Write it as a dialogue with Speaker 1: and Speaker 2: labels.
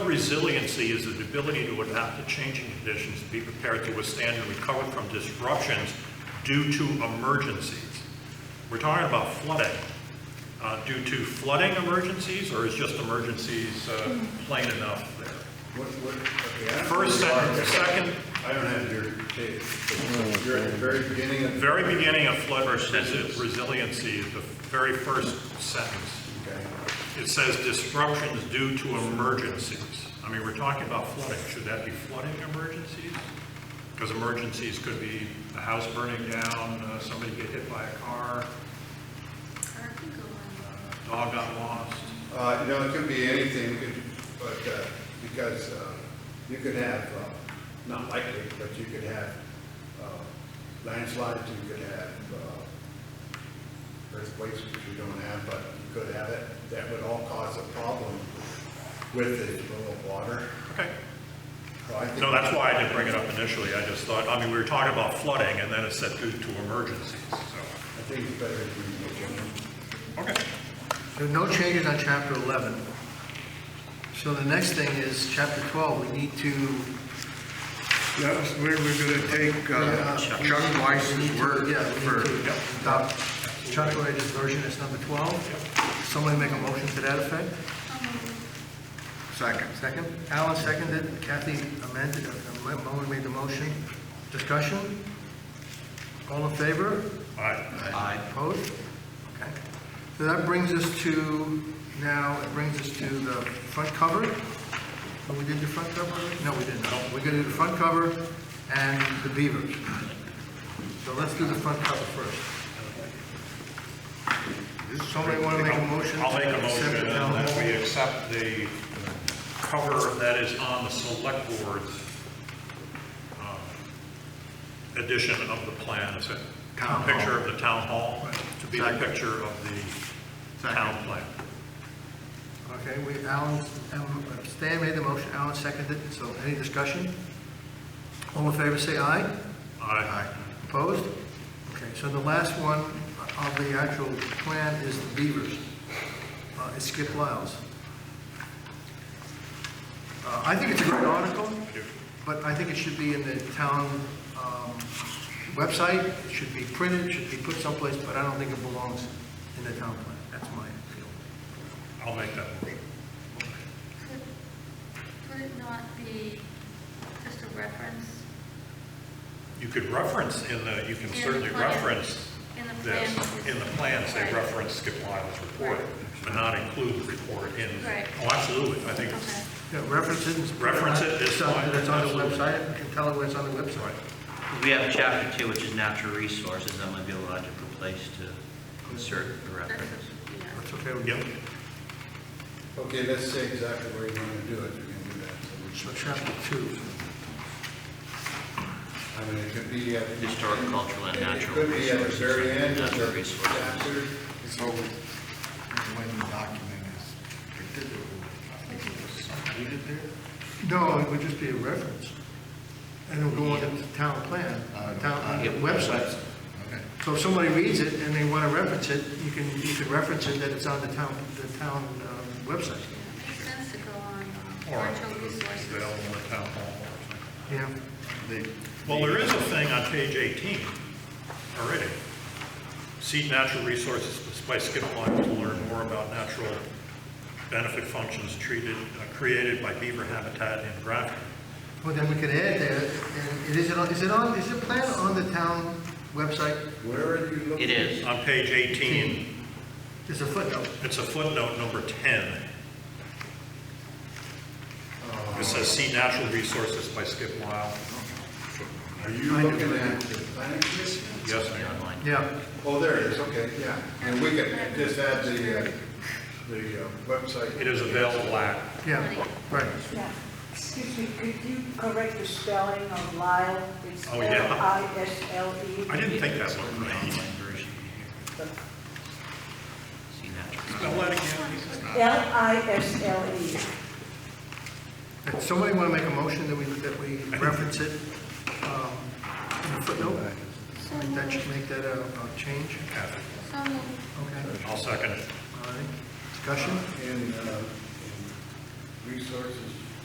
Speaker 1: resiliency is the ability to adapt to changing conditions, to be prepared to withstand and recover from disruptions due to emergencies. We're talking about flooding. Uh, Due to flooding emergencies, or is just emergencies uh, plain enough there?
Speaker 2: What, what, okay. I don't
Speaker 1: First
Speaker 2: know where you
Speaker 1: sentence,
Speaker 2: are.
Speaker 1: second.
Speaker 2: I don't have your tape. but You're at the very beginning of,
Speaker 1: Very beginning of flood resi- resiliency, is the very first sentence.
Speaker 2: okay.
Speaker 1: It says disruptions due to emergencies. I mean, we're talking about flooding. Should that be flooding emergencies? Because emergencies could be a house burning down, uh, somebody get hit by a car, uh, dog got lost.
Speaker 2: Uh, you know, it could be anything, it could- but, uh, because, uh, you could have, uh, not likely, but you could have, uh, landslides, you could have, uh, earthquakes, which you don't have, but you could have it. That would all cause a problem with the flow of water.
Speaker 1: Okay.
Speaker 2: So I think-
Speaker 1: No, that's why I didn't bring it up initially. I just thought, I mean, we were talking about flooding and then it said due to emergencies, so.
Speaker 2: I think it's better if you make it.
Speaker 1: Okay.
Speaker 3: There are no changes on chapter 11. So the next thing is chapter 12, we need to,
Speaker 4: That was where we're gonna take uh,
Speaker 3: Yeah.
Speaker 4: Chuck
Speaker 3: we need
Speaker 4: Weiss's
Speaker 3: to-
Speaker 4: word
Speaker 3: yeah, we need
Speaker 4: for,
Speaker 3: to
Speaker 1: yep.
Speaker 3: adopt Chuck Wright's version as number 12. Somebody make a motion to that effect?
Speaker 4: second.
Speaker 3: Second? Alan seconded, Kathy amended, uh, Ma- Moen made the motion. Discussion? All in favor?
Speaker 1: All right.
Speaker 3: Aye. Opposed? Okay. So that brings us to, now, it brings us to the front cover. Oh, we did the front cover? No, we didn't. Oh, We're going to do the front cover and the beavers. So let's do the front cover first. Does Somebody want to make a motion?
Speaker 1: I'll make
Speaker 3: to
Speaker 1: a
Speaker 3: accept
Speaker 1: motion
Speaker 3: the town
Speaker 1: that
Speaker 3: hall?
Speaker 1: we accept the uh, cover that is on the select board's um, edition of the plan, is it?
Speaker 4: Town hall.
Speaker 1: Picture of the town hall, to be the picture of the
Speaker 4: Second.
Speaker 1: town plan.
Speaker 3: Okay, we, Alan, um, Stan made the motion, Alan seconded, so any discussion? All in favor, say aye.
Speaker 1: Aye.
Speaker 3: Opposed? Okay, so the last one of the actual plan is the Beavers. Uh, It's Skip Lyles. Uh, I think it's a great article, but I think it should be in the town um, website, it should be printed, it should be put someplace, but I don't think it belongs in the town plan. That's my feeling.
Speaker 1: I'll make that motion.
Speaker 5: Could it not be just a reference?
Speaker 1: You could reference in the, you can
Speaker 5: In the
Speaker 1: certainly
Speaker 5: plan.
Speaker 1: reference
Speaker 5: In the
Speaker 1: this.
Speaker 5: plan.
Speaker 1: In the plan, say
Speaker 5: Right.
Speaker 1: reference Skip Lyle's report, but not include the report in.
Speaker 5: Right.
Speaker 1: Oh, absolutely, I think it's,
Speaker 5: Okay.
Speaker 3: Yeah, reference it.
Speaker 1: Reference it, it's
Speaker 3: So that It's on the
Speaker 1: fine, absolutely.
Speaker 3: website, we can tell it when it's on the website.
Speaker 6: We have chapter two, which is natural resources, that might be a logical place to insert a
Speaker 5: That's
Speaker 6: reference.
Speaker 5: what- yeah.
Speaker 3: That's okay with you?
Speaker 1: yep,
Speaker 2: Okay, let's say exactly where you want to do it, you can do that. So we
Speaker 3: So
Speaker 2: should-
Speaker 3: chapter two.
Speaker 2: I mean, it could be at. the-
Speaker 6: Historic, cultural, and
Speaker 2: it-
Speaker 6: natural
Speaker 2: It could be at the
Speaker 6: resources,
Speaker 2: very end of
Speaker 6: natural
Speaker 2: the
Speaker 6: resources.
Speaker 2: chapter.
Speaker 7: It's always when the document is particular, I think it was included there.
Speaker 3: No, it would just be a reference. And it'll go on the town plan, uh, town, on the website.
Speaker 7: Okay.
Speaker 3: So if somebody reads it and they want to reference it, you can, you can reference it that it's on the town, the town um, website.
Speaker 5: Makes sense to go on
Speaker 1: or
Speaker 5: natural
Speaker 1: it's available
Speaker 5: resources.
Speaker 1: in the town hall or something.
Speaker 3: Yeah.
Speaker 1: Well, there is a thing on page 18 already. See natural resources by Skip Lyons to learn more about natural benefit functions treated, uh, created by beaver habitat in Grafton.
Speaker 3: Well, then we could add that, and it is, it on- is it on, is the plan on the town website?
Speaker 2: Where are you looking?
Speaker 6: It is.
Speaker 1: On page 18,
Speaker 3: There's a footnote.
Speaker 1: it's a footnote number 10. It says, see natural resources by Skip Lyle.
Speaker 2: Are you
Speaker 3: I do.
Speaker 2: looking at the planning commission?
Speaker 1: Yes,
Speaker 6: Something
Speaker 1: ma'am.
Speaker 6: online.
Speaker 3: Yeah.
Speaker 2: Oh, there it is, okay, yeah. And we could just add the, uh, the uh, website.
Speaker 1: It is available at,
Speaker 3: Yeah, right.
Speaker 8: Yeah, excuse me, could you correct the spelling of Lyle? It's
Speaker 1: Oh, yeah.
Speaker 8: L-I-S-L-E.
Speaker 1: I didn't think that
Speaker 6: It's
Speaker 1: looked
Speaker 6: an online
Speaker 1: right.
Speaker 6: version here. See natural.
Speaker 1: Spell that again.
Speaker 8: L-I-S-L-E.
Speaker 3: If somebody want to make a motion that we, that we reference it um, in the footnote? I think that should make that a a change.
Speaker 1: Kathy.
Speaker 5: So moved.
Speaker 3: Okay.
Speaker 1: I'll second it.
Speaker 3: All right, discussion?
Speaker 2: In, uh, in resources